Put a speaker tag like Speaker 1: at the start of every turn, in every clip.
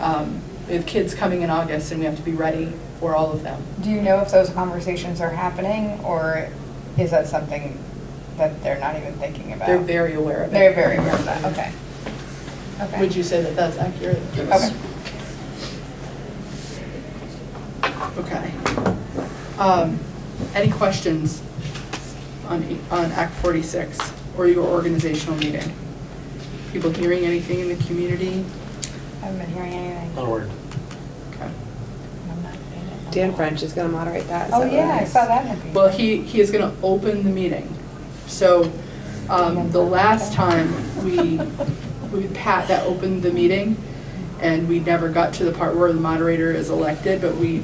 Speaker 1: um, we have kids coming in August and we have to be ready for all of them.
Speaker 2: Do you know if those conversations are happening, or is that something that they're not even thinking about?
Speaker 1: They're very aware of it.
Speaker 2: They're very aware of that, okay. Okay.
Speaker 1: Would you say that that's accurate?
Speaker 2: Yes.
Speaker 1: Okay. Um, Any questions on, E, on Act 46 or your organizational meeting? People hearing anything in the community?
Speaker 2: Haven't been hearing anything.
Speaker 3: Onward.
Speaker 1: Okay.
Speaker 2: I'm not seeing it.
Speaker 4: Dan French is gonna moderate that. is
Speaker 2: Oh,
Speaker 4: that
Speaker 2: yeah,
Speaker 4: right?
Speaker 2: I saw that in the
Speaker 1: Well, he, he is going to open the meeting. So um, the last time we, we Pat that opened the meeting, and we never got to the part where the moderator is elected, but we,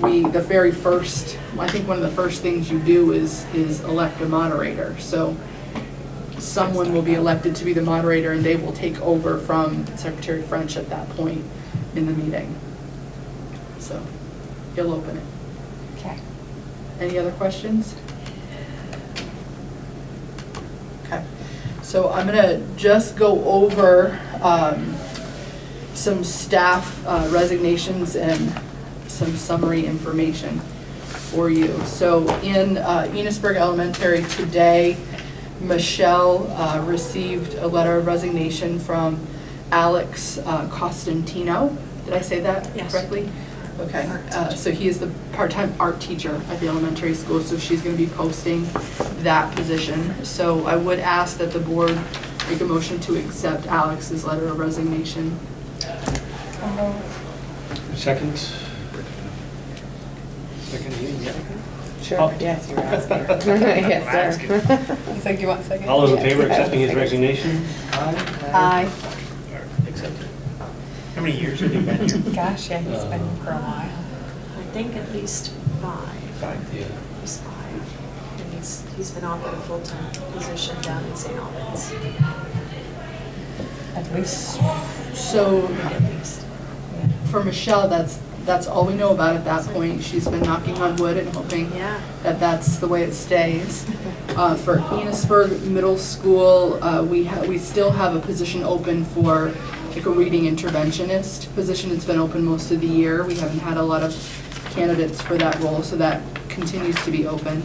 Speaker 1: we, the very first, I think one of the first things you do is, is elect a moderator. So someone will be elected to be the moderator, and they will take over from Secretary French at that point in the meeting. So he'll open it.
Speaker 2: Okay.
Speaker 1: Any other questions? Okay, so I'm gonna just go over um, some staff uh, resignations and some summary information for you. So in uh, Enosburg Elementary today, Michelle uh, received a letter of resignation from Alex uh, Costantino. Did I say that
Speaker 5: Yes.
Speaker 1: correctly? Okay, uh, so he is the part-time art teacher at the elementary school, so she's gonna be posting that position. So I would ask that the board make a motion to accept Alex's letter of resignation.
Speaker 2: Uh-huh.
Speaker 3: Second. Second meeting, yeah.
Speaker 1: Oh.
Speaker 4: Sure, yes, you're asking. Yes, sir.
Speaker 2: He's like, you want a second?
Speaker 3: All those in
Speaker 4: Yeah.
Speaker 3: favor of accepting his resignation?
Speaker 2: Aye.
Speaker 6: or accepted. How many years have you been here?
Speaker 2: Gosh, yeah, he's been
Speaker 3: Uh.
Speaker 2: here for a while.
Speaker 5: I think at least five,
Speaker 6: Five.
Speaker 3: Yeah.
Speaker 5: he's five. And he's, he's been offered a full-time position down in St. Albans,
Speaker 2: At least.
Speaker 1: So
Speaker 5: at least.
Speaker 1: for Michelle, that's, that's all we know about at that point. She's been knocking on wood and hoping
Speaker 5: Yeah.
Speaker 1: that that's the way it stays. Uh, For Enosburg Middle School, uh, we have, we still have a position open for like a reading interventionist position. It's been open most of the year. We haven't had a lot of candidates for that role, so that continues to be open.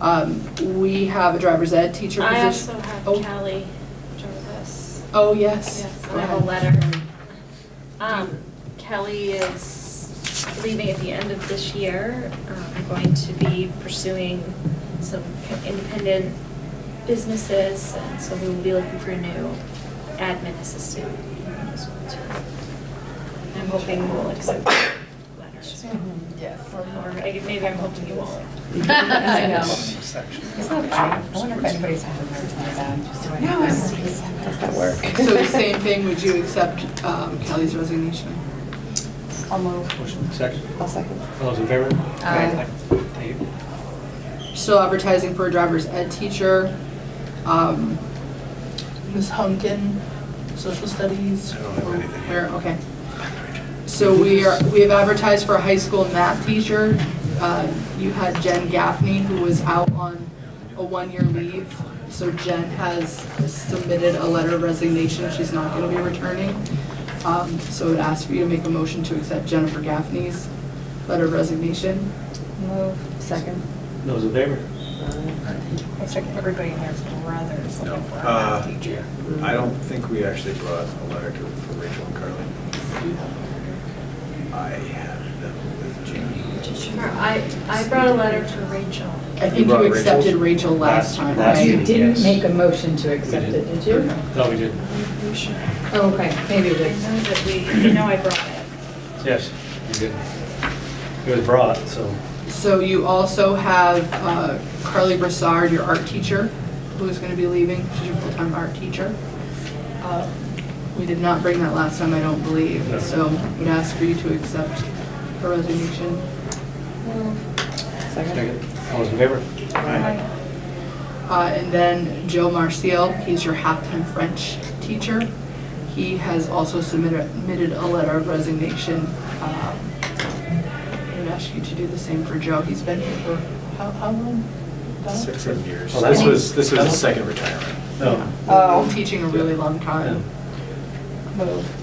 Speaker 1: Um, We have a driver's ed teacher position.
Speaker 7: I also have
Speaker 1: Oh.
Speaker 7: Callie Jarvis.
Speaker 1: Oh, yes.
Speaker 7: Yes,
Speaker 1: Go
Speaker 7: I have
Speaker 1: ahead.
Speaker 7: a letter. Um, Kelly is leaving at the end of this year. Um, going to be pursuing some independent businesses, and so we will be looking for a new admin assistant. as well, too. I'm hoping we'll accept the letter.
Speaker 2: Yes.
Speaker 7: Or maybe I'm hoping you won't.
Speaker 2: I know.
Speaker 6: Section.
Speaker 2: It's not bad. I wonder if anybody's had a nervous breakdown. No,
Speaker 4: Does that work?
Speaker 1: So the same thing, would you accept um, Kelly's resignation?
Speaker 2: I'll move.
Speaker 3: Motion second.
Speaker 4: I'll second.
Speaker 3: All those in favor?
Speaker 2: Aye.
Speaker 3: Aye.
Speaker 1: Still advertising for a driver's ed teacher. Um, Ms. Hunkin, social studies.
Speaker 6: I don't have
Speaker 1: or
Speaker 6: anything.
Speaker 1: where- Okay. So we are, we have advertised for a high school math teacher. Uh, You had Jen Gaffney, who was out on a one-year leave. So Jen has submitted a letter of resignation. She's not going to be returning. Um, So I would ask for you to make a motion to accept Jennifer Gaffney's letter of resignation.
Speaker 2: Move.
Speaker 4: Second.
Speaker 3: Those in favor?
Speaker 2: Looks like everybody in there's brothers
Speaker 6: No.
Speaker 2: looking for a
Speaker 6: Uh,
Speaker 2: math teacher.
Speaker 6: I don't think we actually brought a letter to, for Rachel and Carly. I had them with Jamie.
Speaker 5: Sure, I, I brought a letter to Rachel.
Speaker 1: I think
Speaker 6: brought
Speaker 1: you
Speaker 6: Rachel's?
Speaker 1: accepted Rachel last time,
Speaker 3: last
Speaker 1: right?
Speaker 3: meeting, yes.
Speaker 8: Didn't make a motion to accept
Speaker 3: We
Speaker 8: it,
Speaker 3: didn't.
Speaker 8: did you?
Speaker 3: No, we didn't.
Speaker 5: You should, I
Speaker 8: Oh, okay, maybe you
Speaker 7: I
Speaker 8: did.
Speaker 7: know that we, you know I brought it.
Speaker 3: Yes, we did. It was brought, so.
Speaker 1: So you also have uh, Carly Brassard, your art teacher, who is going to be leaving. She's your full-time art teacher. Uh, We did not bring that last time, I don't believe,
Speaker 3: No.
Speaker 1: so I would ask for you to accept her resignation.
Speaker 4: Second.
Speaker 3: Second. All those in favor?
Speaker 1: Uh, And then Joe Marcial, he's your half-time French teacher. He has also submitted submitted a letter of resignation. Um, I would ask you to do the same for Joe. He's been here for how how long? About-
Speaker 6: Six, seven years.
Speaker 3: Well, that's-
Speaker 6: This was, this was his second retirement.
Speaker 3: No.
Speaker 2: Oh.
Speaker 1: Teaching a really long time.
Speaker 2: Move.